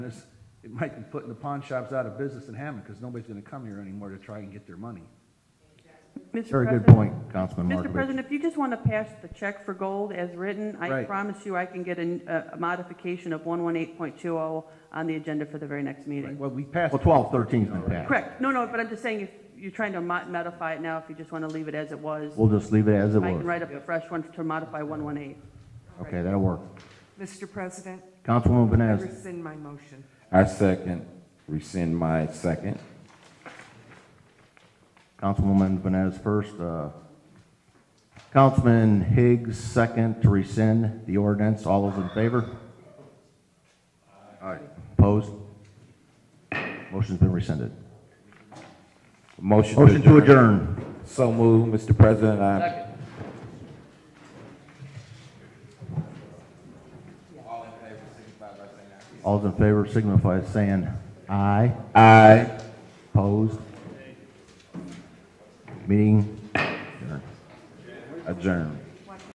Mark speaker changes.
Speaker 1: This, it might be putting the pawn shops out of business in Hammond, because nobody's gonna come here anymore to try and get their money.
Speaker 2: Mr.
Speaker 3: Very good
Speaker 2: President-
Speaker 3: point, Councilman
Speaker 2: Mr.
Speaker 3: Markovich.
Speaker 2: President, if you just want to pass the check for gold as written, I
Speaker 1: Right.
Speaker 2: promise you I can get an- a a modification of 118.20 on the agenda for the very next
Speaker 1: Right,
Speaker 2: meeting.
Speaker 1: Well, we passed. Oh,
Speaker 3: Well, 12, 13's been passed.
Speaker 2: Correct. No, no, but I'm just saying if you're trying to mo- modify it now, if you just want to leave it as it was,
Speaker 3: We'll just leave it as it
Speaker 2: I can
Speaker 3: was.
Speaker 2: write up a fresh one to modify 118.
Speaker 3: Okay, that'll work.
Speaker 4: Mr. President,
Speaker 3: Councilwoman
Speaker 4: I
Speaker 3: Vines,
Speaker 4: rescind my motion.
Speaker 5: I second, rescind my second.
Speaker 3: Councilwoman Vines first, uh, Councilman Higgs second to rescind the ordinance. All those in favor? Aye. Opposed? Motion's been rescinded.
Speaker 5: Motion to
Speaker 3: Motion to
Speaker 5: adjourn.
Speaker 3: adjourn.
Speaker 5: So moved, Mr. President. I-
Speaker 3: All those in favor signify by saying aye.
Speaker 5: Aye.
Speaker 3: Opposed? Meeting adjourned.
Speaker 5: Adjourn.